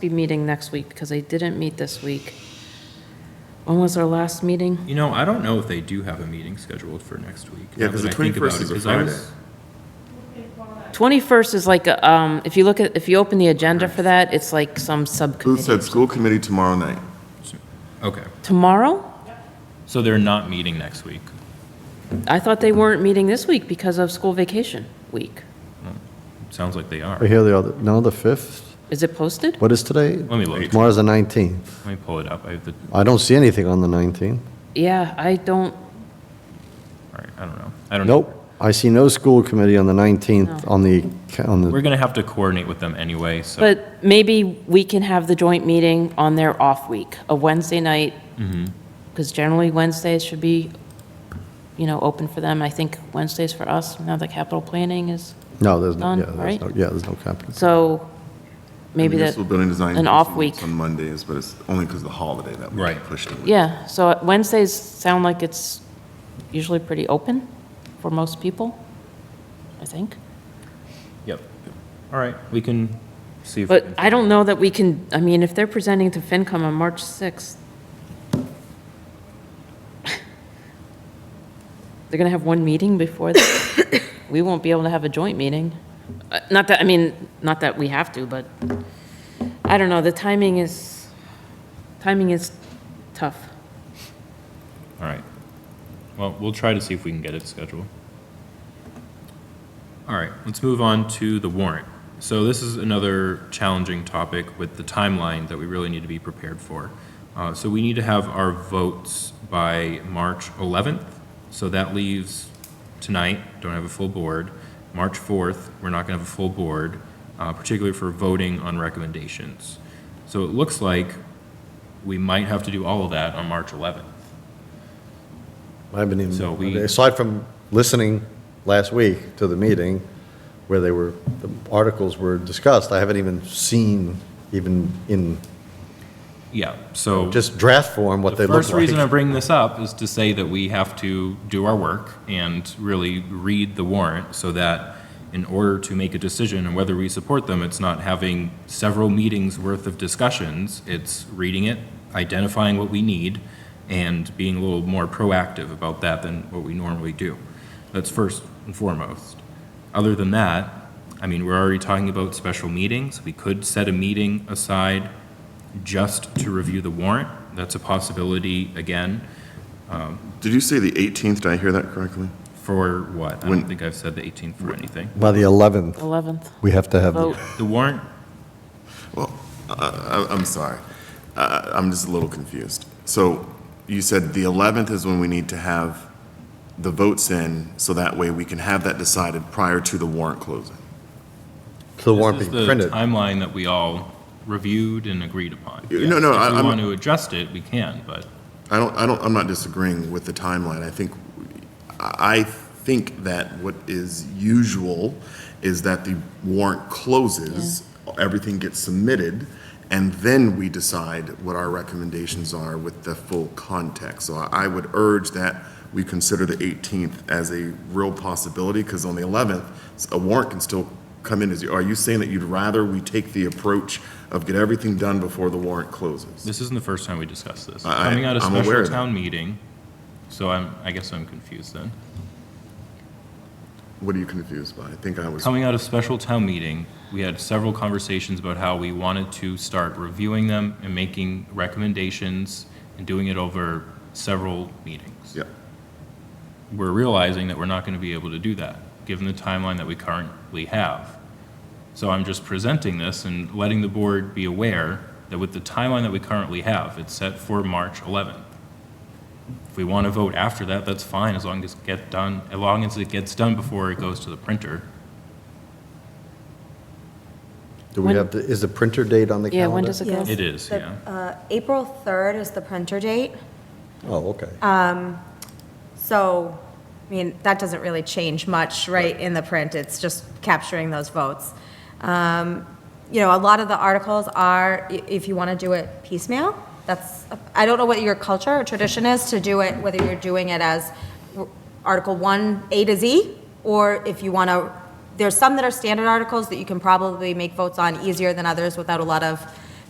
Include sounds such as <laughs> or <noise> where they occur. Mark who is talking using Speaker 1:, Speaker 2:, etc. Speaker 1: be meeting next week because they didn't meet this week. When was our last meeting?
Speaker 2: You know, I don't know if they do have a meeting scheduled for next week.
Speaker 3: Yeah,
Speaker 2: now
Speaker 3: 'cause
Speaker 2: that
Speaker 3: the
Speaker 2: I think about
Speaker 3: 21st
Speaker 2: it,
Speaker 3: is a
Speaker 2: 'cause I was-
Speaker 3: Friday.
Speaker 1: 21st is like, a, um, if you look at, if you open the agenda for that, it's like some
Speaker 3: Booth said
Speaker 1: subcommittee.
Speaker 3: school committee tomorrow night.
Speaker 2: Okay,
Speaker 1: Tomorrow?
Speaker 2: so they're not meeting next week.
Speaker 1: I thought they weren't meeting this week because of school vacation week.
Speaker 2: Sounds like they are.
Speaker 4: Right here, the other, no, the 5th?
Speaker 1: Is it posted?
Speaker 4: What is today?
Speaker 2: Let me look.
Speaker 4: Tomorrow's the 19th.
Speaker 2: Let me pull it up. I have the,
Speaker 4: I don't see anything on the 19th.
Speaker 1: Yeah, I don't,
Speaker 2: all right, I don't know. I don't. know.
Speaker 4: Nope, I see no school committee on the 19th,
Speaker 1: No.
Speaker 4: on the, ca- on
Speaker 2: We're
Speaker 4: the,
Speaker 2: gonna have to coordinate with them anyway, so.
Speaker 1: but maybe we can have the joint meeting on their off week, a Wednesday night. Because generally Wednesdays should be, you know, open for them. I think Wednesdays for us, now that capital planning is.
Speaker 4: no, there's, no.
Speaker 1: Done,
Speaker 4: yeah, there's
Speaker 1: right?
Speaker 4: no, yeah, there's no capital.
Speaker 1: So maybe that,
Speaker 3: Municipal building design
Speaker 1: an off
Speaker 3: usually
Speaker 1: week.
Speaker 3: works On Mondays, but it's only because of the holiday that we
Speaker 2: Right.
Speaker 3: pushed it.
Speaker 1: yeah, so Wednesdays sound like it's usually pretty open for most people, I think.
Speaker 2: Yep. All right, we can see if. we
Speaker 1: But
Speaker 2: can-
Speaker 1: I don't know that we can, I mean, if they're presenting to FinCom on March <laughs> 6th, they're going to have one meeting before that. We won't be able to have a joint meeting. Uh, Not that, I mean, not that we have to, but I don't know, the timing is, timing is tough.
Speaker 2: All right. Well, we'll try to see if we can get it scheduled. All right, let's move on to the warrant. So this is another challenging topic with the timeline that we really need to be prepared for. Uh, So we need to have our votes by March 11th. So that leaves tonight, don't have a full board. March 4th, we're not going to have a full board, uh, particularly for voting on recommendations. So it looks like we might have to do all of that on March 11th.
Speaker 4: I haven't
Speaker 2: So we-
Speaker 4: even, aside from listening last week to the meeting where they were, the articles were discussed, I haven't even seen, even in
Speaker 2: Yeah, so.
Speaker 4: just draft form, what they
Speaker 2: The
Speaker 4: look like.
Speaker 2: first reason I bring this up is to say that we have to do our work and really read the warrant so that in order to make a decision on whether we support them, it's not having several meetings worth of discussions. It's reading it, identifying what we need, and being a little more proactive about that than what we normally do. That's first and foremost. Other than that, I mean, we're already talking about special meetings. We could set a meeting aside just to review the warrant. That's a possibility, again,
Speaker 3: Did you say the 18th? Did I hear that correctly?
Speaker 2: for what? I don't
Speaker 3: When-
Speaker 2: think I've said the 18th for anything.
Speaker 4: By the 11th,
Speaker 1: 11th,
Speaker 4: we have to have, the-
Speaker 1: vote.
Speaker 2: The warrant,
Speaker 3: Well, I- I- I'm sorry. I- I'm just a little confused. So you said the 11th is when we need to have the votes in, so that way we can have that decided prior to the warrant closing.
Speaker 4: the warrant
Speaker 2: this is
Speaker 4: being
Speaker 2: the
Speaker 4: printed.
Speaker 2: timeline that we all reviewed and agreed upon.
Speaker 3: Yeah, no, no,
Speaker 2: Yes,
Speaker 3: I-
Speaker 2: If we
Speaker 3: I'm-
Speaker 2: want to adjust it, we can, but
Speaker 3: I don't, I don't, I'm not disagreeing with the timeline. I think, I I think that what is usual is that the warrant closes, everything gets submitted, and then we decide what our recommendations are with the full context. So I I would urge that we consider the 18th as a real possibility, because on the 11th, a warrant can still come in. Is- Are you saying that you'd rather we take the approach of get everything done before the warrant closes?
Speaker 2: this isn't the first time we discussed this.
Speaker 3: I- I-
Speaker 2: Coming out of
Speaker 3: I'm aware
Speaker 2: special
Speaker 3: of that.
Speaker 2: town meeting, so I'm, I guess I'm confused then.
Speaker 3: What are you confused by? I think I was.
Speaker 2: Coming out of special town meeting, we had several conversations about how we wanted to start reviewing them and making recommendations and doing it over several meetings.
Speaker 3: Yeah,
Speaker 2: we're realizing that we're not going to be able to do that, given the timeline that we currently have. So I'm just presenting this and letting the board be aware that with the timeline that we currently have, it's set for March 11th. If we want to vote after that, that's fine, as long as it gets done, as long as it gets done before it goes to the printer.
Speaker 4: Do we
Speaker 1: When-
Speaker 4: have, to- is the printer date on the
Speaker 1: Yeah,
Speaker 4: calendar?
Speaker 1: when does it go?
Speaker 5: Yes.
Speaker 2: It is,
Speaker 5: The,
Speaker 2: yeah.
Speaker 5: uh, April 3rd is the printer date,
Speaker 4: Oh, okay.
Speaker 5: so, I mean, that doesn't really change much, right, in the print, it's just capturing those votes. Um, You know, a lot of the articles are, i- if you want to do it piecemeal, that's, I don't know what your culture or tradition is to do it, whether you're doing it as Article 1, A to Z, or if you want to, there's some that are standard articles that you can probably make votes on easier than others without a lot of